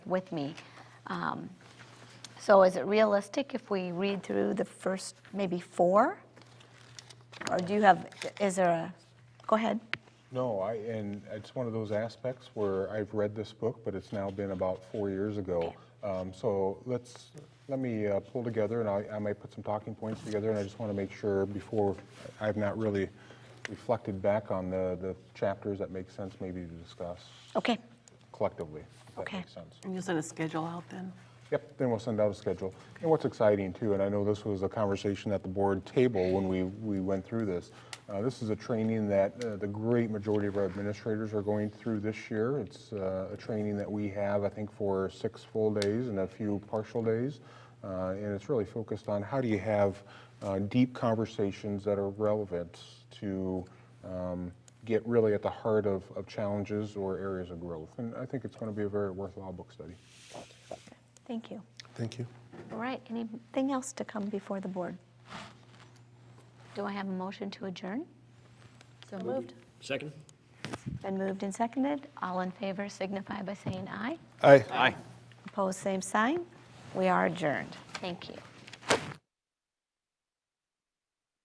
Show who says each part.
Speaker 1: with me. Um, So is it realistic if we read through the first maybe four? Or do you have, is there a, go ahead.
Speaker 2: No, I, and it's one of those aspects where I've read this book, but it's now been about four years ago. Um, So let's, let me uh, pull together, and I, I might put some talking points together, and I just want to make sure before, I've not really reflected back on the, the chapters that make sense maybe to discuss
Speaker 1: Okay,
Speaker 2: collectively, if that
Speaker 1: Okay.
Speaker 2: makes sense.
Speaker 3: And you'll send a schedule out then?
Speaker 2: Yep, then we'll send out a schedule. And what's exciting too, and I know this was a conversation at the board table when we, we went through this, uh, this is a training that uh, the great majority of our administrators are going through this year. It's uh, a training that we have, I think, for six full days and a few partial days. Uh, And it's really focused on how do you have uh, deep conversations that are relevant to um, get really at the heart of, of challenges or areas of growth. And I think it's going to be a very worthwhile book study.
Speaker 1: thank you.
Speaker 4: Thank you.
Speaker 1: All right, anything else to come before the board? Do I have a motion to adjourn? So moved.
Speaker 5: Second?
Speaker 1: Been moved and seconded. All in favor signify by saying aye.
Speaker 4: Aye.
Speaker 5: Aye.
Speaker 1: Opposed, same sign. We are adjourned. Thank you.